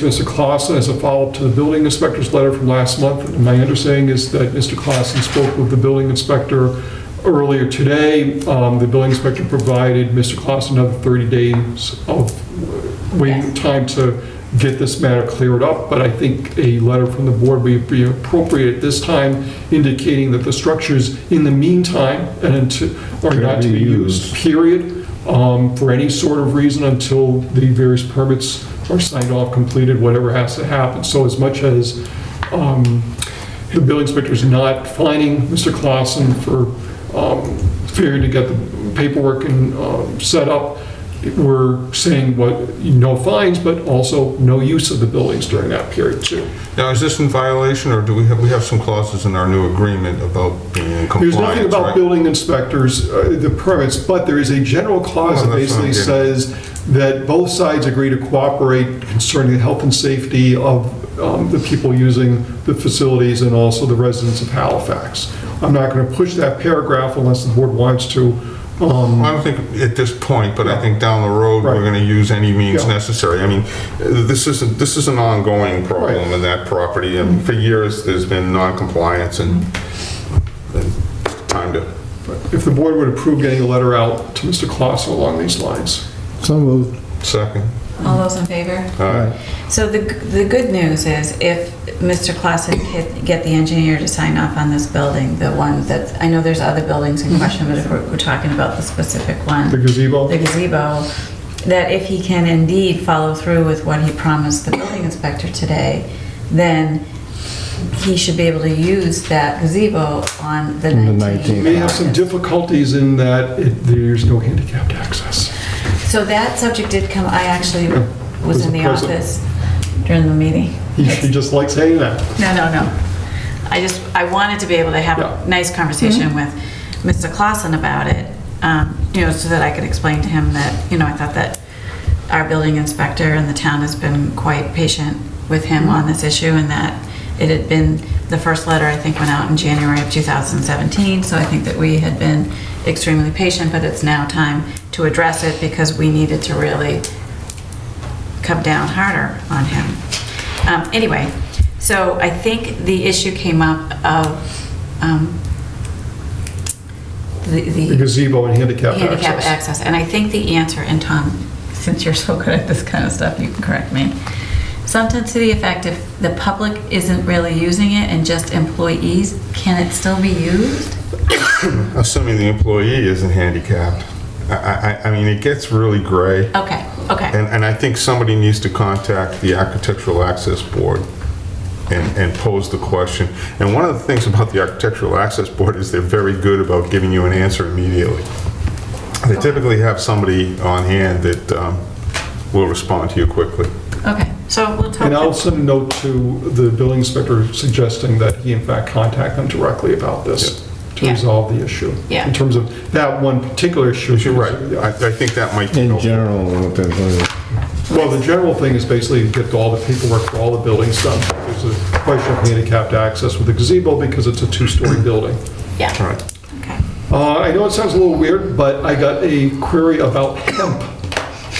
Mr. Clausen, as a follow-up to the building inspector's letter from last month, my understanding is that Mr. Clausen spoke with the building inspector earlier today. Um, The building inspector provided Mr. Clausen another 30 days of waiting Yes. time to get this matter cleared up, but I think a letter from the board would be appropriate at this time indicating that the structures, in the meantime, and until, are Can not to be be used, used. period, um, for any sort of reason until the various permits are signed off, completed, whatever has to happen. So as much as um, the building inspector's not fining Mr. Clausen for um, failing to get the paperwork and um, set up, we're saying what, no fines, but also no use of the buildings during that period too. Now, is this in violation, or do we have, we have some clauses in our new agreement about being in There's nothing compliance, about right? building inspectors, uh, the permits, but there is a general clause that Well, Oh, that's what I'm basically getting says that both sides agree to cooperate concerning the health and safety of um, the people using the facilities and also the residents of Halifax. I'm not going to push that paragraph unless the board wants to. um, Well, I don't think at this point, but I think down the road, Right. we're gonna use any means Yeah. necessary. I mean, uh, this isn't, this is an ongoing problem Right. in that property, and for years, there's been non-compliance and, and time to, If the board would approve getting a letter out to Mr. Clausen along these lines. So moved. second. Uh, All those in favor? All right. So the, the good news is if Mr. Clausen could get the engineer to sign off on this building, the one that, I know there's other buildings in question, but if we're, we're talking about the specific The one, gazebo? the gazebo, that if he can indeed follow through with what he promised the building inspector today, then he should be able to use that gazebo on the On the 19th. You may have some difficulties in that it- there's no handicapped access. So that subject did come, I actually was Was in the present. office during the meeting. He he just likes saying that. No, no, no. I just, I wanted to be able to have Yeah. a nice conversation with Mr. Clausen about it, um, you know, so that I could explain to him that, you know, I thought that our building inspector and the town has been quite patient with him on this issue and that it had been, the first letter, I think, went out in January of 2017, so I think that we had been extremely patient, but it's now time to address it because we needed to really come down harder on him. Um, anyway, so I think the issue came up of um, the, The the gazebo and handicapped handicap access. access, and I think the answer, and Tom, since you're so good at this kind of stuff, you can correct me. Something to the effect if the public isn't really using it and just employees, can it still be used? Assuming the employee isn't handicapped. I- I, I, I mean, it gets really gray. Okay, okay, And, and I think somebody needs to contact the Architectural Access Board and, and pose the question. And one of the things about the Architectural Access Board is they're very good about giving you an answer immediately. They typically have somebody on hand that um, will respond to you quickly. okay, so we'll talk. And I'll send a note to the building inspector suggesting that he in fact contact them directly about this to Yeah. resolve the issue. Yeah. In terms of that one particular issue. You're right, I, I think that might be In helpful. general, what they're doing. Well, the general thing is basically get all the paperwork for all the buildings done. There's a question of handicapped access with the gazebo because it's a two-story building. All Yeah, right. okay. Uh, I know it sounds a little weird, but I got a query about hemp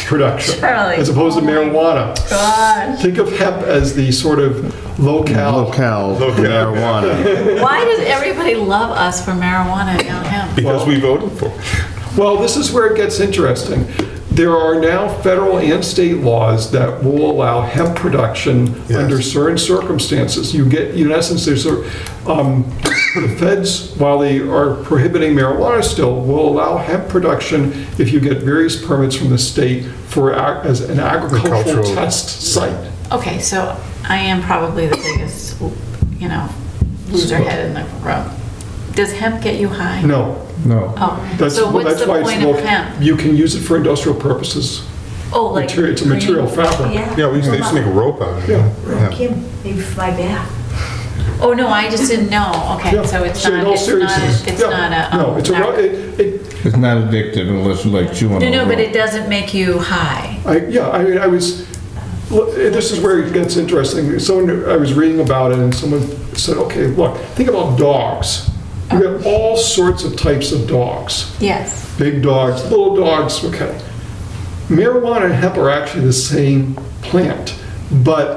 production. Charlie. As opposed to Oh my marijuana. God. Think of hemp as the sort of locale Locale Locale. marijuana. Why does everybody love us for marijuana and not him? Because we voted for it. Well, this is where it gets interesting. There are now federal and state laws that will allow hemp production Yes. under certain circumstances. You get, in essence, there's, a- um, the feds, while they are prohibiting marijuana still, will allow hemp production if you get various permits from the state for, ag- as an agricultural Agricultural. test site. Okay, so I am probably the biggest, you know, loser head in the room. Does hemp get you high? No, No. Oh, that's, so what's that's the why it's point of local. hemp? You can use it for industrial purposes. Oh, like material- it's a green- material fabric. Yeah, we used to they used to make rope out of it. Yeah. Yeah. Kim, maybe fly back. Oh, no, I just didn't know. Okay, Yeah. so it's in not, all it's not, seriousness, it's yeah, not a. No, um, it's a, ro- narco- it, it, It's not addictive unless you like chewing on No, it. no, but it doesn't make you high. I, yeah, I mean, I was, look, this is where it gets interesting. Someone, I was reading about it and someone said, okay, look, think about dogs. You have Uh-huh. all sorts of types of dogs, Yes. big dogs, little dogs, okay. Marijuana and hemp are actually the same plant. But